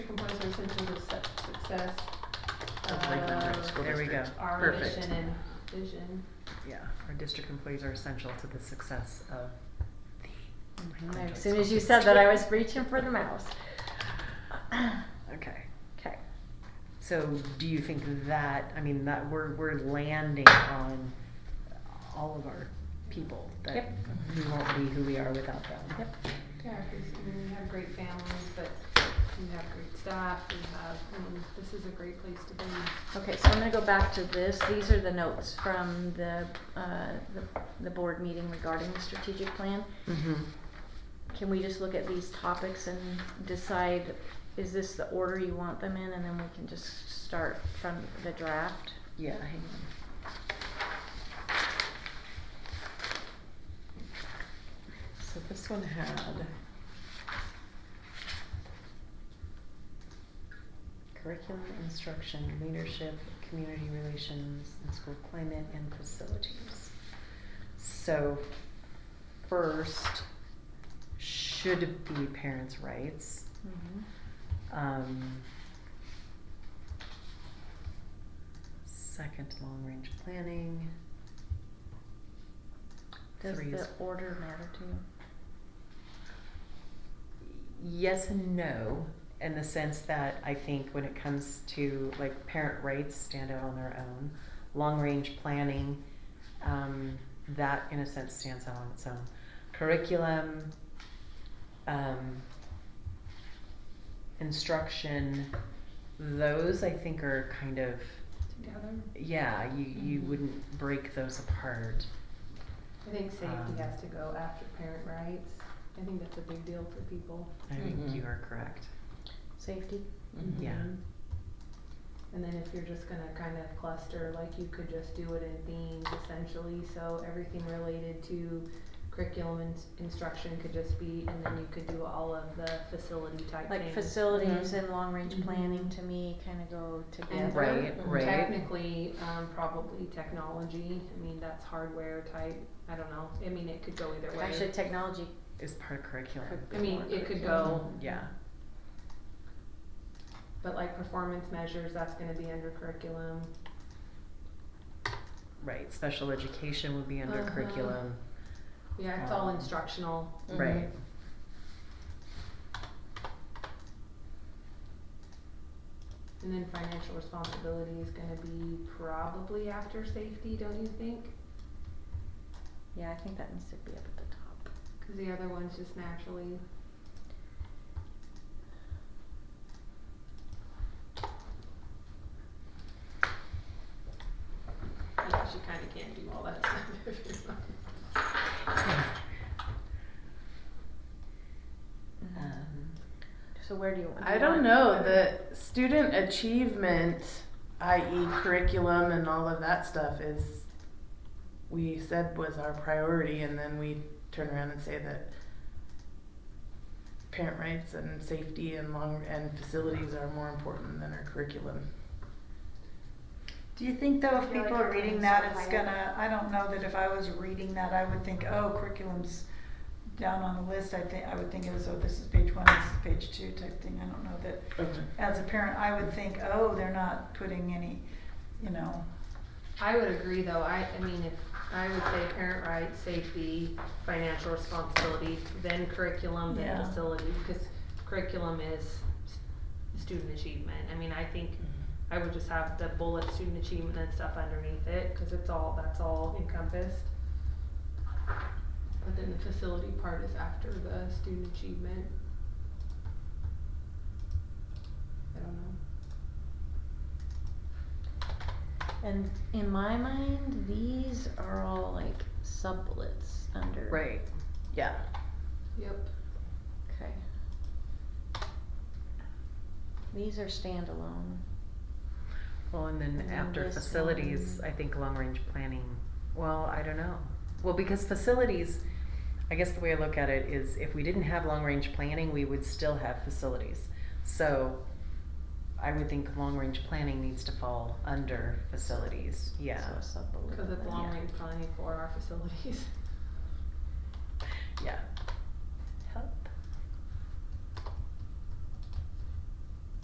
Conversations of Su- Success. Lakeland um, Grove School Uh, There we go. District. Our Perfect. mission and vision. Yeah, our district employees are essential to the success of the. Lakeland High As soon as School you said that, I was District. reaching for the mouse. Okay, Okay. so do you think that, I mean, that we're, we're landing on all of our people? That Yep. we won't be who we are without them? Yep. Yeah, because, I mean, we have great families, but we have great staff, we have, I mean, this is a great place to be. Okay, so I'm gonna go back to this. These are the notes from the, uh, the, the board meeting regarding the strategic plan. Mm-hmm. Can we just look at these topics and decide, is this the order you want them in, and then we can just start from the draft? Yeah, hang on. So this one had. Curriculum, instruction, leadership, community relations, and school climate and facilities. So first should be parents' rights. Mhm. Um, second long range planning. Does Three is- the order matter to you? yes and no in the sense that I think when it comes to like parent rights stand out on their own, long range planning, um, that in a sense stands out on its own. Curriculum, um, instruction, those I think are kind of Together, yeah you you Mhm. wouldn't break those apart. I think safety Um, has to go after parent rights. I think that's a big deal for people. I think you Mhm. are correct. Safety? Yeah. Mhm. And then if you're just gonna kind of cluster, like you could just do it in themes essentially, so everything related to curriculum and s- instruction could just be, and then you could do all of the facility type things. Like facilities Mm-hmm. Mhm. and long-range Mhm. planning to me kinda go together. And Right, they're right. Technically, um, probably technology, I mean, that's hardware type, I don't know, I mean, it could go either way. Actually, technology Is part of curriculum. could be I mean, more it could curriculum. go, Yeah. but like performance measures, that's gonna be under curriculum. Right, special education would be under Uh-huh. curriculum. Yeah, it's all Um, instructional, Mm-hmm. Mhm. Right. and then financial responsibility is gonna be probably after safety, don't you think? Yeah, I think that needs to be up at the top. Cause the other ones just naturally, I guess you kinda can't do all that stuff if you're not. Um, Mm-hmm. Uh, So where do you want? I don't know. The student achievement, i.e., curriculum and all of that stuff, is we said was our priority, and then we turn around and say that parent rights and safety and long and facilities are more important than our curriculum. Do you think though, I if feel people like are our reading brains that, are it's higher. gonna, I don't know that if I was reading that, I would think, oh, curriculum's down on the list, I think, I would think it was, oh, this is page one, this is page two type thing, I don't know that. Okay. As a parent, I would think, oh, they're not putting any, you know, I would agree though, I, I mean, if, I would say parent rights, safety, financial responsibility, then curriculum, then Yeah. facility, because curriculum is s- student achievement, I mean, I think I would just have the bullet student achievement and stuff underneath it, cause it's all, that's all encompassed. But then the facility part is after the student achievement. I don't know. And in my mind, these are all like sublets under. Right, Yeah. Yep. Okay. These are standalone. well, and then And then after this facilities, one. I think long-range planning, well, I don't know. Well, because facilities, I guess the way I look at it is if we didn't have long-range planning, we would still have facilities. So I would think long-range planning needs to fall under facilities, yeah, So a sublet. Cause it's of that. long range planning for our facilities. yeah.